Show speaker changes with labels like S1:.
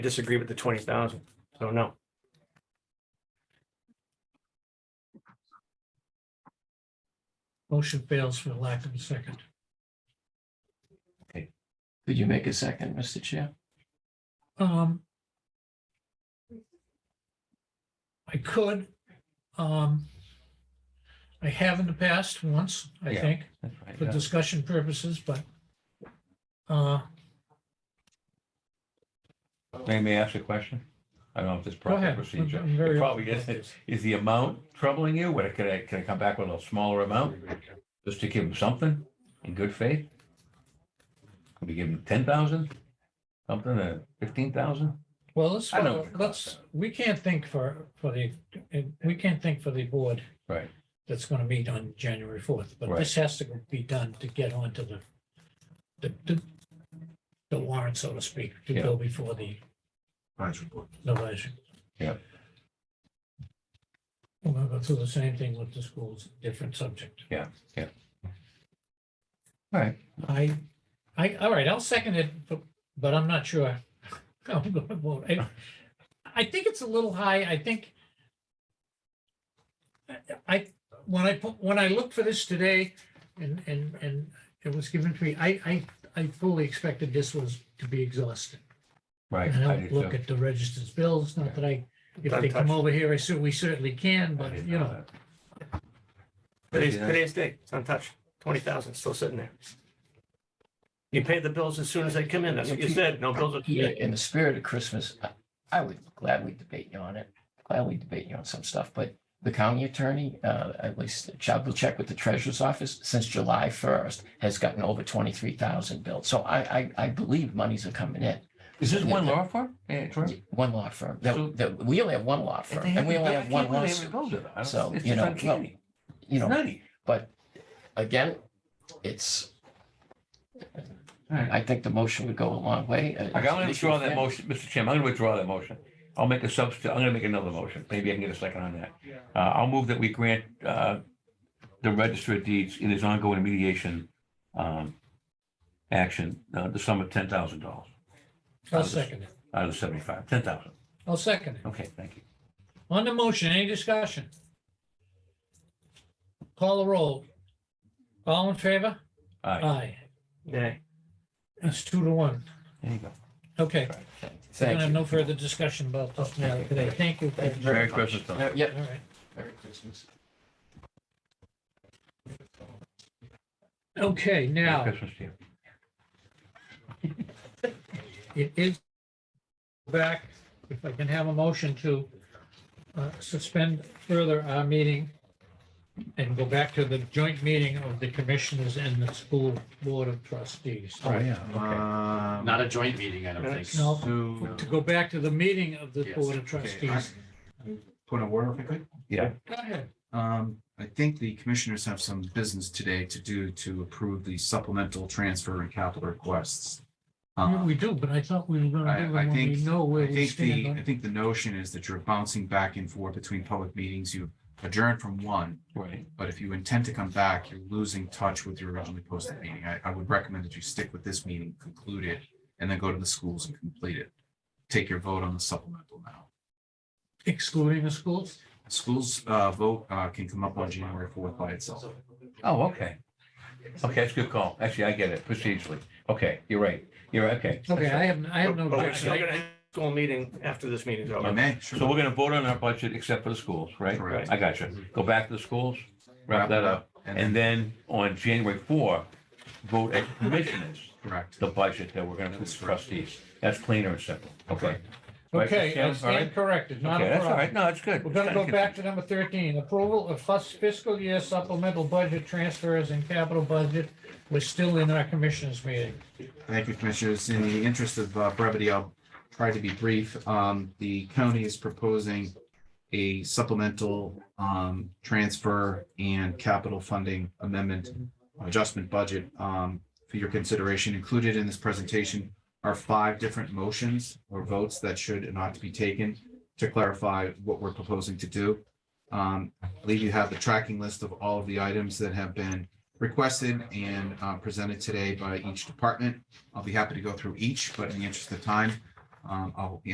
S1: disagree with the twenty thousand, so no.
S2: Motion fails for lack of a second.
S3: Could you make a second, Mr. Chair?
S2: Um. I could, um. I have in the past once, I
S3: Yeah.
S2: think,
S3: That's right.
S2: for discussion purposes, but. Uh,
S4: May may I ask a question? I don't know if this
S2: go
S4: proper
S2: ahead.
S4: procedure.
S2: I'm very
S4: It probably
S2: open about
S4: isn't.
S2: this.
S4: Is the amount troubling you? What, could I, can I come back with a smaller amount? Just to give them something in good faith? Could we give them ten thousand? Something, uh, fifteen thousand?
S2: Well, let's,
S4: I know what the
S2: let's,
S4: costs are.
S2: we can't think for, for the, we can't think for the board
S4: Right,
S2: that's gonna meet on January fourth, but
S4: Right.
S2: this has to be done to get onto the, the, the- the warrant, so to speak, to go before the the vision.
S4: Yeah.
S2: We're gonna go through the same thing with the schools, different subject.
S4: Yeah, yeah. All right.
S2: I, I, all right, I'll second it, but, but I'm not sure. I'm gonna vote. I, I think it's a little high, I think. I, when I put, when I looked for this today and, and, and it was given to me, I, I, I fully expected this was to be exhausted.
S4: right.
S2: And I
S4: I
S2: don't
S4: did
S2: look
S4: too.
S2: at the registered bills, not that I, if they
S1: Untouched.
S2: come over here, I said, we certainly can,
S4: I
S2: but
S4: didn't
S2: you know,
S4: that.
S1: Today's,
S4: Yeah.
S1: today's date, it's untouched, twenty thousand, still sitting there. You pay the bills as soon as they come in, that's what you said, no bills are.
S3: Yeah, in the spirit of Christmas, I- I would gladly debate you on it, gladly debate you on some stuff, but the county attorney, uh, at least Chad will check with the treasurer's office, since July first, has gotten over twenty-three thousand billed. So I, I, I believe monies are coming in.
S4: Is this
S3: Yeah.
S4: one law firm? Yeah, Troy?
S3: One law firm,
S4: So-
S3: that, that, we only have one law
S4: If
S3: firm,
S4: they
S3: and we
S4: haven't-
S3: only
S4: I
S3: have
S4: can't
S3: one
S4: believe they haven't
S3: lawsuit,
S4: built it. I don't-
S3: So,
S4: it's
S3: you
S4: just
S3: know, well,
S4: uncanny.
S3: you
S4: It's
S3: know,
S4: nutty.
S3: but again, it's,
S4: All right.
S3: I think the motion would go a long way. Uh,
S4: I'm gonna withdraw
S3: Yeah.
S4: that motion, Mr. Chairman, I'm gonna withdraw that motion. I'll make a substitute, I'm gonna make another motion, maybe I can get a second on that. Uh, I'll move that we grant, uh, the register of deeds in his ongoing mediation, um, action, uh, the sum of ten thousand dollars,
S2: I'll second it.
S4: out of the seventy-five, ten thousand,
S2: I'll second it.
S4: okay, thank you.
S2: On the motion, any discussion? Call the roll. All in favor?
S4: All right,
S2: Aye.
S1: Nay,
S2: It's two to one.
S4: there you go.
S2: Okay. We're
S3: Thank
S2: gonna
S3: you.
S2: have no further discussion about this matter today. Thank you.
S3: Thank you
S4: Merry
S3: very much.
S4: Christmas, Tom.
S3: Uh, Yeah,
S2: All right.
S3: Merry Christmas.
S2: Okay,
S4: Merry
S2: now,
S4: Christmas to you.
S2: it is back, if I can have a motion to uh, suspend further our meeting and go back to the joint meeting of the commissioners and the school board of trustees.
S4: Oh, yeah.
S5: Not
S6: Not a joint meeting, I don't think.
S2: Um, No.
S6: So-
S2: To go back to the meeting of the
S6: Yes,
S2: board of
S6: okay, I-
S2: trustees.
S6: Point of order, if I could.
S4: Yeah,
S2: Go ahead.
S6: Um, I think the commissioners have some business today to do to approve the supplemental transfer and capital requests.
S2: Yeah,
S6: Um,
S2: We do, but I thought we were gonna
S6: I-
S2: do
S6: I
S2: it when we
S6: think-
S2: know where
S6: I
S2: we
S6: think
S2: stand
S6: the, I
S2: on.
S6: think the notion is that you're bouncing back and forth between public meetings. You adjourn from one,
S4: right,
S6: but if you intend to come back, you're losing touch with your originally posted meeting. I, I would recommend that you stick with this meeting, conclude it, and then go to the schools and complete it. Take your vote on the supplemental now.
S2: Excluding the schools?
S6: Schools uh, vote uh, can come up on January fourth by itself.
S4: oh, okay. Okay, that's a good call, actually, I get it, procedurally, okay, you're right, you're, right. okay.
S2: Okay, I have, I have
S1: but
S2: no.
S6: Oh,
S1: but we're still
S2: objection.
S1: gonna have a school meeting after this meeting's
S6: I
S1: over.
S6: may,
S4: So
S6: sure.
S4: we're gonna vote on our budget except for the schools, right?
S6: Correct.
S4: I got you.
S2: Mm-hmm.
S4: Go back to the schools, wrap that up, and then on January four, vote at commissioners,
S6: Correct.
S4: the budget that we're gonna approve to trustees. That's cleaner and simple, okay? Right,
S2: Okay, I
S4: Christina? All right?
S2: stand corrected, not
S4: Okay,
S2: a
S4: that's all
S2: problem.
S4: right, no, it's good.
S2: We're gonna go back to number thirteen, approval of fus- fiscal year supplemental budget transfers and capital budget. We're still in our commissioners meeting.
S6: Thank you, Commissioners. In the interest of uh, brevity, I'll try to be brief. Um, The county is proposing a supplemental um, transfer and capital funding amendment adjustment budget um, for your consideration. Included in this presentation are five different motions or votes that should and ought to be taken to clarify what we're proposing to do. Um, I believe you have the tracking list of all of the items that have been requested and uh, presented today by each department. I'll be happy to go through each, but in the interest of time, um, I'll be